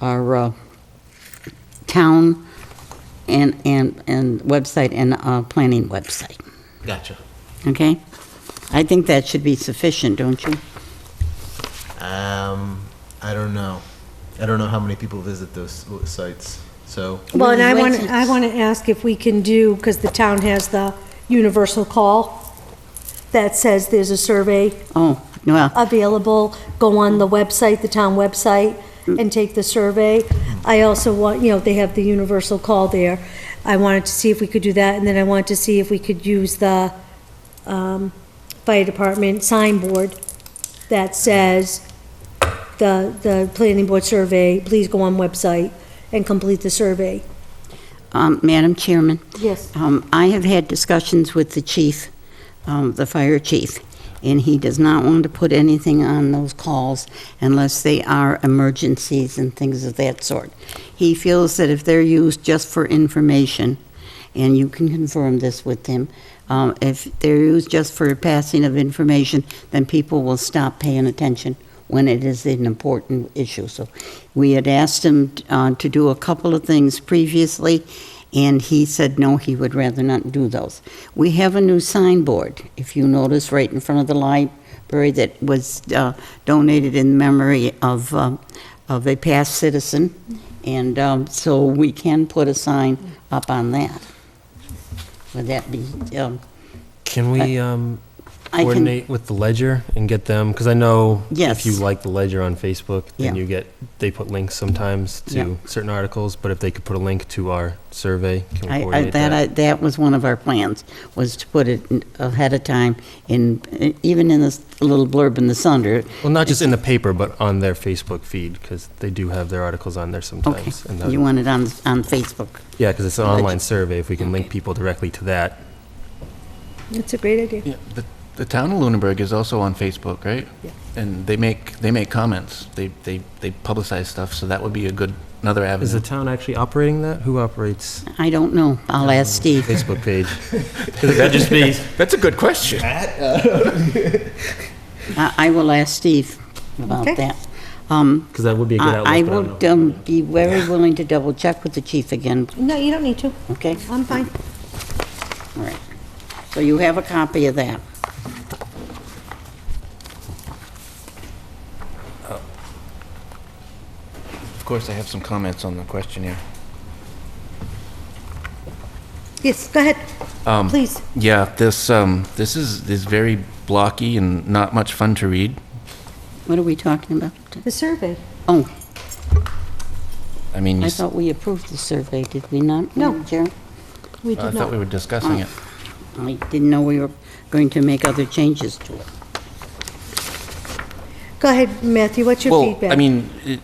our uh, town and, and, and website and uh, planning website, Gotcha. okay? I think that should be sufficient, don't you? Um, I don't know. I don't know how many people visit those sites. So Well, and I Wait, want, it's- I want to ask if we can do, because the town has the universal call that says there's a survey Oh, well, available, go on the website, the town website, and take the survey. I also want, you know, they have the universal call there. I wanted to see if we could do that, and then I wanted to see if we could use the um, fire department signboard that says the, the planning board survey, please go on website and complete the survey. um, Madam Chairman, Yes. um, I have had discussions with the chief, um, the fire chief, and he does not want to put anything on those calls unless they are emergencies and things of that sort. He feels that if they're used just for information, and you can confirm this with him, um, if they're used just for passing of information, then people will stop paying attention when it is an important issue. So we had asked him uh, to do a couple of things previously, and he said no, he would rather not do those. We have a new signboard, if you notice, right in front of the library that was uh, donated in memory of, um, of a past citizen, and um, so we can put a sign up on that. Would that be, um, Can we um, I can, coordinate with the ledger and get them? Because I know Yes. if you like the ledger on Facebook, then Yeah. you get they put links sometimes to Yeah. certain articles. But if they could put a link to our survey, can we I- I, coordinate that, I- that was one of our plans, was to put it in- ahead of time in, even in this little blurb in the Sunder, well, not just in the paper, but on their Facebook feed because they do have their articles on there okay, sometimes. And the- you want it on, on Facebook. yeah, because it's an Ledger. online survey. If we can link people directly to that, That's a great idea. Yeah, the, the town of Lunenburg is also on Facebook, right? Yeah. And they make, they make comments, they, they, they publicize stuff, so that would be a good, another is the avenue. town actually operating that? Who operates I don't know, I'll ask Steve. Facebook page? Could that just be? That's a good question. I I will ask Steve about Okay. that. Um, Because that would be a good outlook. I I but don't would know. um, be very willing to double check with the chief again, No, you don't need to. okay? I'm fine. All right. So you have a copy of that. Of course, I have some comments on the questionnaire. Yes, go ahead. Um, Please. Yeah, this, um, this is, is very blocky and not much fun to read. What are we talking about? The survey. Oh, I mean, you I s- thought we approved the survey, did we not? No. Madam Chair? We I did thought we not. Uh, were discussing it. I didn't know we were going to make other changes to it. Go ahead, Matthew, what's your Well, feedback? I mean, it,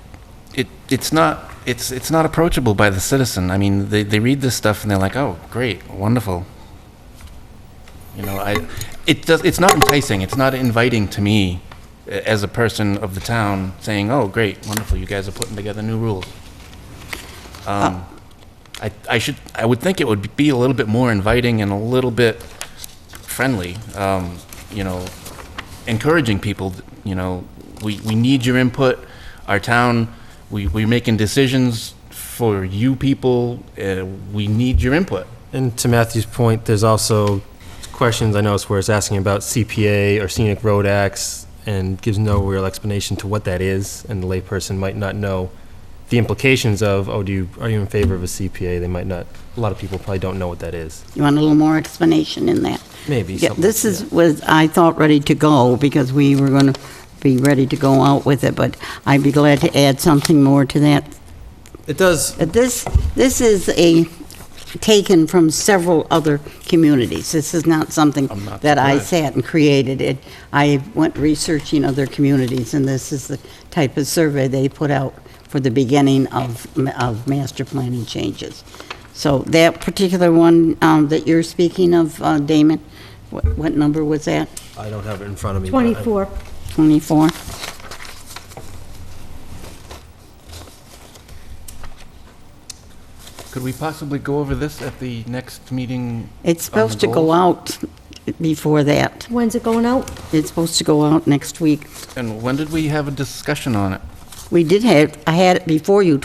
it, it's not, it's, it's not approachable by the citizen. I mean, they, they read this stuff and they're like, oh, great, wonderful. You know, I, it does, it's not enticing, it's not inviting to me a- as a person of the town saying, oh, great, wonderful, you guys are putting together new rules. Uh, Um, I, I should, I would think it would be a little bit more inviting and a little bit friendly, um, you know, encouraging people, you know, we, we need your input, our town, we, we're making decisions for you people, uh, we need your input. And to Matthew's point, there's also questions I noticed where it's asking about CPA or scenic road acts and gives no real explanation to what that is, and the layperson might not know the implications of, oh, do you, are you in favor of a CPA? They might not, a lot of people probably don't know what that is. You want a little more explanation in that? Maybe Yeah, something- this is, yeah. was, I thought, ready to go, because we were going to be ready to go out with it, but I'd be glad to add something more to that It does, But Uh, This, this is a, taken from several other communities. This is not something I'm not that I surprised. sat and created. It, I went researching other communities, and this is the type of survey they put out for the beginning of, of master planning changes. So that particular one um, that you're speaking of, uh, Damon, what, what number was that? I don't have it in front of me. but I- 24. 24? Could we possibly go over this at the next meeting? It's supposed to go goals? out before that. When's it going out? It's supposed to go out next week. And when did we have a discussion on it? We did have, I had it before you